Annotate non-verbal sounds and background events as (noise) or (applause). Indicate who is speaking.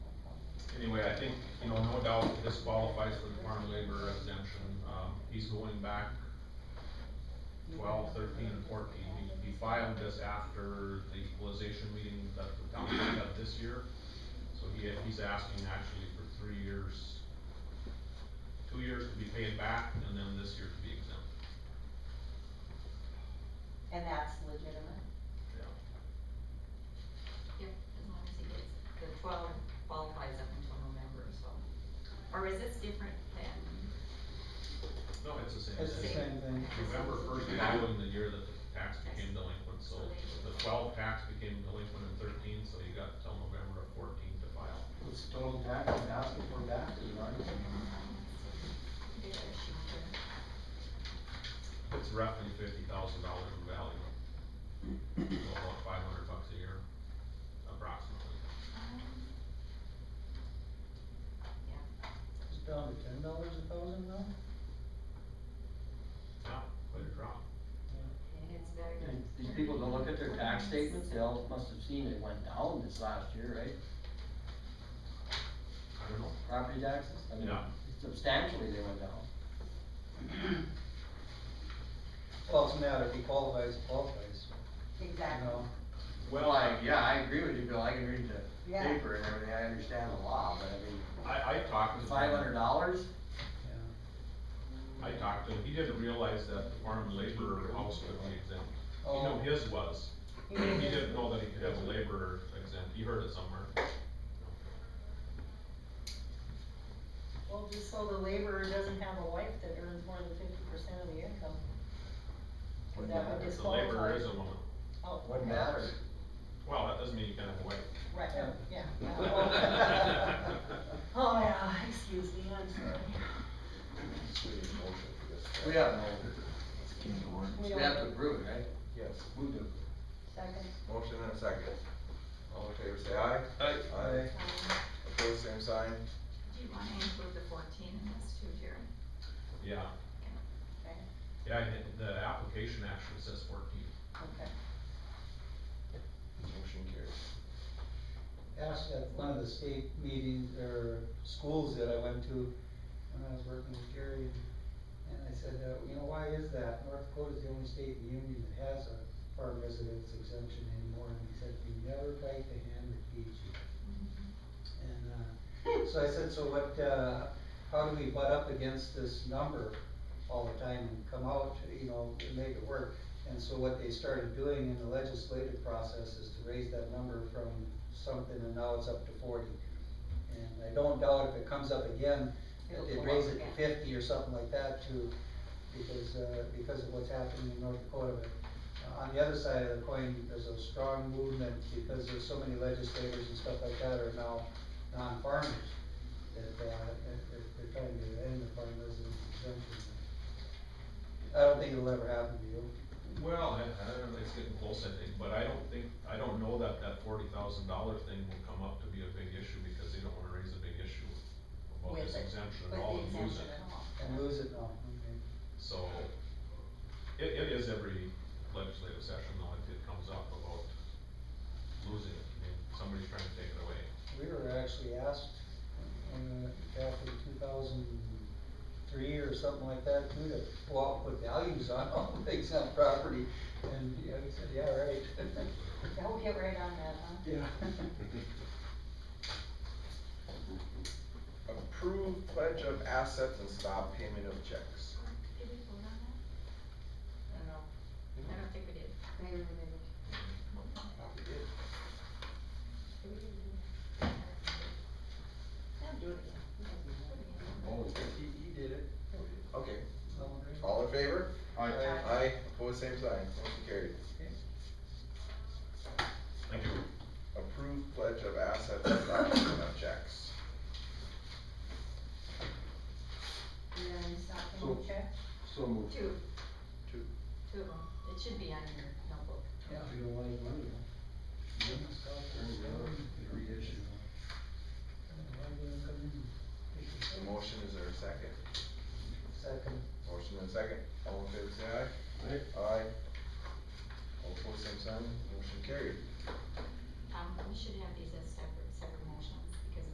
Speaker 1: think, you know, no doubt this qualifies for the farm labor exemption, um, he's going back twelve, thirteen, and fourteen, he, he filed this after the equalization meeting that the town had this year. So he, he's asking actually for three years, two years to be paid back, and then this year to be exempt,
Speaker 2: And that's legitimate?
Speaker 1: yeah.
Speaker 3: Yep, as long as he gets, the twelve qualifies up until November, so. Or is this different than,
Speaker 1: No, it's the same
Speaker 4: It's the
Speaker 1: thing.
Speaker 4: same thing.
Speaker 1: November first following the year that the tax became delinquent, so
Speaker 3: So
Speaker 1: the twelve tax became delinquent in thirteen, so you got till November of fourteen to file.
Speaker 4: It's total tax and ask it for back, you know,
Speaker 3: did I shoot her?
Speaker 1: It's roughly fifty thousand dollars in value. So about five hundred bucks a year, approximately.
Speaker 4: it's down to ten dollars a thousand now?
Speaker 1: Now, quite a drop.
Speaker 3: It's better than.
Speaker 5: And These people don't look at their tax statements, they all must have seen it went down this last year, right?
Speaker 1: I don't know.
Speaker 5: Property taxes, I mean,
Speaker 1: Yeah.
Speaker 5: substantially they went down.
Speaker 4: (clears throat) Well, it's a matter, if he qualifies, he qualifies, you
Speaker 2: Exactly.
Speaker 4: know,
Speaker 5: Well, I, yeah, I agree with you, Bill, I can read the
Speaker 2: Yeah.
Speaker 5: paper and everything, I understand the law, but I mean,
Speaker 1: I, I talked to. him.
Speaker 5: five hundred dollars?
Speaker 4: yeah.
Speaker 1: I talked to him, he didn't realize that the farm labor house could be exempt. You know,
Speaker 4: Oh.
Speaker 1: his was, he didn't know that he could have a laborer exempt, he heard it somewhere.
Speaker 2: Well, just so the laborer doesn't have a wife that earns more than fifty percent of the income. Is that what
Speaker 1: If the laborer
Speaker 2: disqualifies?
Speaker 1: is a woman,
Speaker 2: Oh,
Speaker 5: What matter?
Speaker 1: well, that doesn't mean you can't have a wife.
Speaker 2: right, oh, yeah.
Speaker 1: (laughs)
Speaker 2: yeah. (laughs)
Speaker 1: Well,
Speaker 2: Oh, yeah, excuse me, I'm sorry.
Speaker 6: We need a motion for this.
Speaker 5: We have no,
Speaker 2: We
Speaker 5: we
Speaker 2: don't-
Speaker 5: have to approve, it, right?
Speaker 6: Yes, we do.
Speaker 2: Second.
Speaker 6: Motion and a second. All in favor, say aye.
Speaker 1: Aye.
Speaker 6: Aye.
Speaker 2: um,
Speaker 6: Opposed, same sign.
Speaker 3: Do you wanna include the fourteen in this too, Jerry?
Speaker 1: Yeah,
Speaker 2: Okay,
Speaker 1: yeah, and the application actually says fourteen.
Speaker 2: okay.
Speaker 6: Motion carries.
Speaker 4: Asked at one of the state meetings or schools that I went to when I was working with Gary, and I said, uh, you know, why is that? North Dakota's the only state in the union that has a farm residence exemption anymore, and he said, you never bite the hand that feeds you. And, uh, so I said, so what, uh, how do we butt up against this number all the time and come out, you know, and make it work? And so what they started doing in the legislative process is to raise that number from something and now it's up to forty. And I don't doubt if it comes up again, that
Speaker 2: It'll
Speaker 4: they'd
Speaker 2: go
Speaker 4: raise
Speaker 2: up
Speaker 4: it to
Speaker 2: again.
Speaker 4: fifty or something like that too, because, uh, because of what's happening in North Dakota. But uh, On the other side of the coin, there's a strong movement because there's so many legislators and stuff like that are now non-farmers. That, uh, that they're, they're trying to end the farm residence exemption. I don't think it'll ever happen to you.
Speaker 1: Well, I, I don't know, it's getting close, I think, but I don't think, I don't know that that forty thousand dollar thing will come up to be a big issue, because they don't wanna raise a big issue about
Speaker 2: With
Speaker 1: this
Speaker 2: it,
Speaker 1: exemption
Speaker 2: with
Speaker 1: at all
Speaker 2: the
Speaker 1: and use
Speaker 2: exemption
Speaker 1: it.
Speaker 2: at all.
Speaker 4: And lose it now, okay.
Speaker 1: So, it, it is every legislative session though, if it comes up about losing it, I mean, somebody's trying to take it away.
Speaker 4: We were actually asked, uh, back in two thousand three or something like that, too, to go out and put values on all the things on property, and, you know, we said, yeah, right. (laughs)
Speaker 2: I'll Oh, get right on that, huh?
Speaker 4: Yeah.
Speaker 6: Approve pledge of assets and stop payment of checks.
Speaker 3: Did we vote on that?
Speaker 2: I don't know,
Speaker 3: I don't think we did.
Speaker 2: maybe we didn't. Yeah, do it again. It doesn't matter.
Speaker 6: Oh, he, he did it. Okay,
Speaker 4: All right.
Speaker 6: all in favor?
Speaker 5: Aye.
Speaker 6: Aye, opposed, same sign. Motion carried.
Speaker 1: Thank you.
Speaker 6: Approve pledge of assets and stop payment of checks.
Speaker 2: And then stop
Speaker 5: So-
Speaker 2: and uh, check.
Speaker 5: So moved.
Speaker 3: Two.
Speaker 6: Two.
Speaker 3: Two of them. It should be on your notebook.
Speaker 4: Yeah,
Speaker 5: If you don't want any money, huh? Reissue.
Speaker 6: The motion, is there a second?
Speaker 4: Second.
Speaker 6: Motion and second. All in favor, say aye.
Speaker 5: Right?
Speaker 6: Aye. All opposed, same sign, motion carried.
Speaker 3: Um, we should have these as